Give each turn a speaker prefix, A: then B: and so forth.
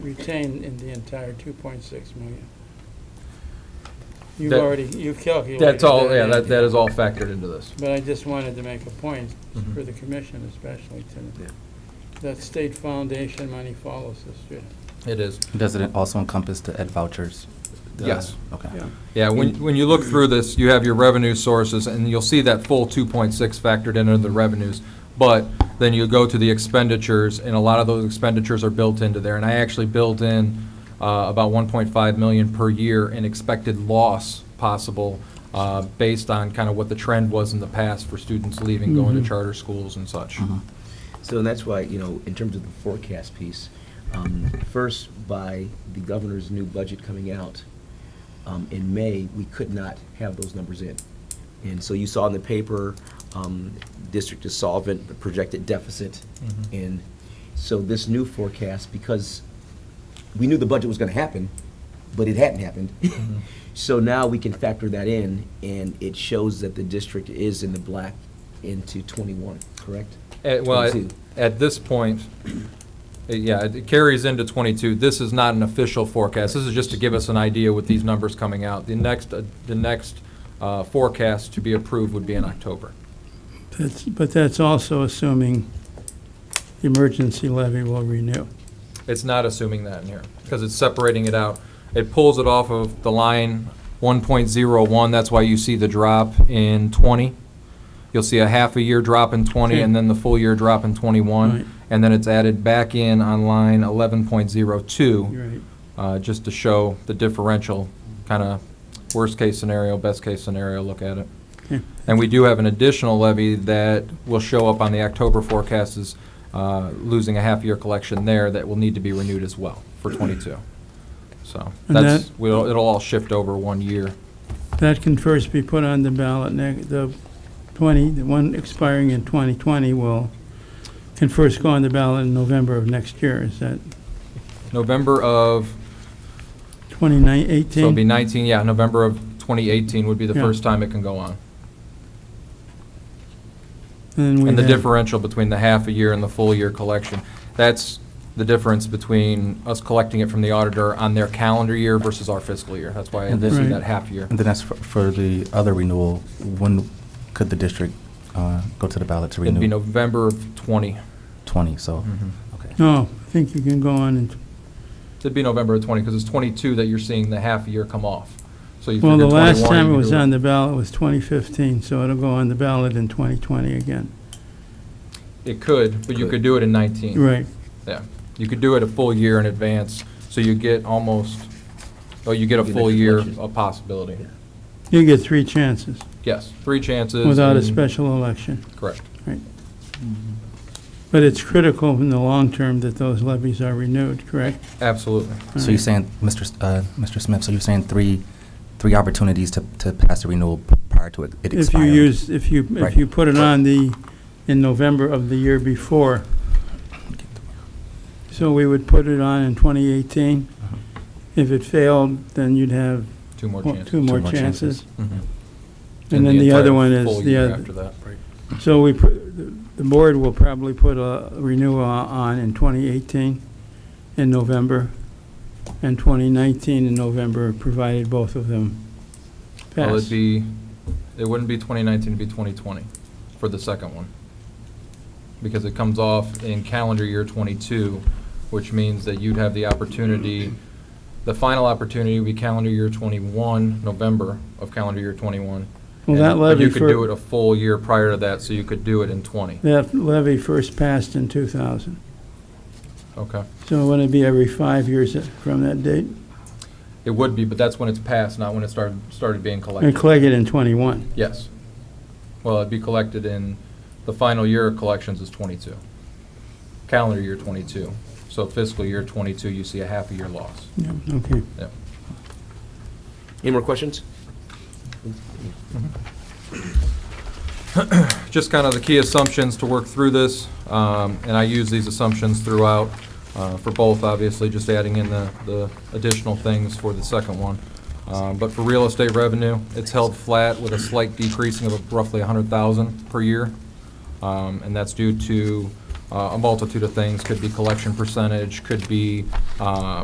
A: retained in the entire 2.6 million. You've
B: That-
A: already, you've calculated.
B: That's all,
A: that
B: yeah,
A: in.
B: that, that is all factored into this.
A: But I just wanted to make a point
B: Mhm.
A: for the commission especially
B: Yeah.
A: to, that state foundation money follows the student.
B: It is. Uh,
C: Does it also encompass the ed vouchers? The-
B: Yes.
C: Okay.
B: Yeah, when, when you look through this, you have your revenue sources, and you'll see that full 2.6 factored into the revenues. But then you go to the expenditures, and a lot of those expenditures are built into there. And I actually built in uh, about 1.5 million per year in expected loss possible, uh, based on kind of what the trend was in the past for students leaving, going to charter schools and such.
D: So that's why, you know, in terms of the forecast piece, um, first, by the governor's new budget coming out um, in May, we could not have those numbers in. And so you saw in the paper, um, district is solvent, the projected deficit.
B: Mhm.
D: And so this new forecast, because we knew the budget was going to happen, but it hadn't happened. So now we can factor that in, and it shows that the district is in the black into 21, correct?
B: At- Well, at-
D: 22.
B: at this point, uh, yeah, it carries into 22. This is not an official forecast. This is just to give us an idea with these numbers coming out. The next, uh, the next uh, forecast to be approved would be in October.
A: That's, but that's also assuming the emergency levy will renew.
B: It's not assuming that in here, because it's separating it out. It pulls it off of the line 1.01, that's why you see the drop in 20. You'll see a half a year drop in 20, and then the full year drop in
A: Right.
B: 21. And then it's added back in on line 11.02.
A: You're right.
B: uh, just to show the differential, kind of worst-case scenario, best-case scenario, look at it.
A: Okay.
B: And we do have an additional levy that will show up on the October forecast as uh, losing a half-year collection there that will need to be renewed as well for '22. So
A: And
B: that's,
A: that-
B: we'll- it'll all shift over one year.
A: That can first be put on the ballot, neg- the 20, the one expiring in 2020 will, can first go on the ballot in November of next year, is that
B: November of, so it'll be
A: 2018?
B: 19, yeah, November of 2018 would be the
A: Yeah.
B: first time it can go on.
A: And we
B: And the
A: have-
B: differential between the half a year and the full year collection, that's the difference between us collecting it from the auditor on their calendar year versus our fiscal year. That's why I
C: And this-
B: see
A: Right.
B: that half year.
C: And then as for, for the other renewal, when could the district, uh, go to the ballot to
B: It'd be
C: renew?
B: November of 20.
C: Twenty, so,
A: Mm-hmm.
B: Mhm.
C: okay.
A: No, I think you can go on and,
B: It'd be November of 20, because it's 22 that you're seeing the half year come off. So you
A: well, the
B: figure
A: last
B: 21,
A: time
B: you
A: it
B: can
A: was
B: do
A: on the ballot was 2015, so it'll go on the ballot in 2020 again.
B: It could, but you
D: Could.
B: could do it in 19.
A: Right,
B: Yeah. You could do it a full year in advance, so you get almost, oh, you get a
D: You get
B: full
D: extra
B: year
D: collection.
B: of possibility.
A: you get three chances
B: Yes, three chances.
A: without a
B: and-
A: special election.
B: Correct.
A: But it's critical in the long term that those levies are renewed, correct?
B: Absolutely.
C: So you're saying, Mr. S- uh, Mr. Smith, so you're saying three, three opportunities to, to pass the renewal p- prior to it it
A: If you
C: expiring?
A: use, if you, if
C: Right.
A: you put it on the, in November of the year before. So we would put it on in 2018.
C: Uh-huh.
A: If it failed, then you'd have
B: Two more
A: one-
B: chances.
A: two more chances.
B: Mhm.
A: And then the other
B: entire
A: one is
B: full
A: the
B: year
A: other.
B: After that.
A: So we, put- the the board will probably put a renewal on in 2018 in November and 2019 in November, provided both of them
B: Well, it'd
A: pass.
B: be, it wouldn't be 2019, it'd be 2020 for the second one. Because it comes off in calendar year 22, which means that you'd have the opportunity, the final opportunity would be calendar year 21, November of calendar year 21.
A: Well, that
B: And- but
A: levy
B: You could do it
A: for,
B: a full year prior to that, so you could do it in 20.
A: that levy first passed in 2000.
B: Okay.
A: So would it be every five years from that date?
B: It would be, but that's when it's passed, not when it started, started being collected.
A: And collect it in 21.
B: Yes. Well, it'd be collected in, the final year of collections is 22. Calendar year 22. So fiscal year 22, you see a half a year loss.
A: Yeah, Okay.
D: Any more questions?
B: Just kind of the key assumptions to work through this, um, and I use these assumptions throughout uh, for both, obviously, just adding in the the additional things for the second one. Um, But for real estate revenue, it's held flat with a slight decreasing of roughly 100,000 per year. Um, And that's due to uh, a multitude of things. Could be collection percentage, could be uh,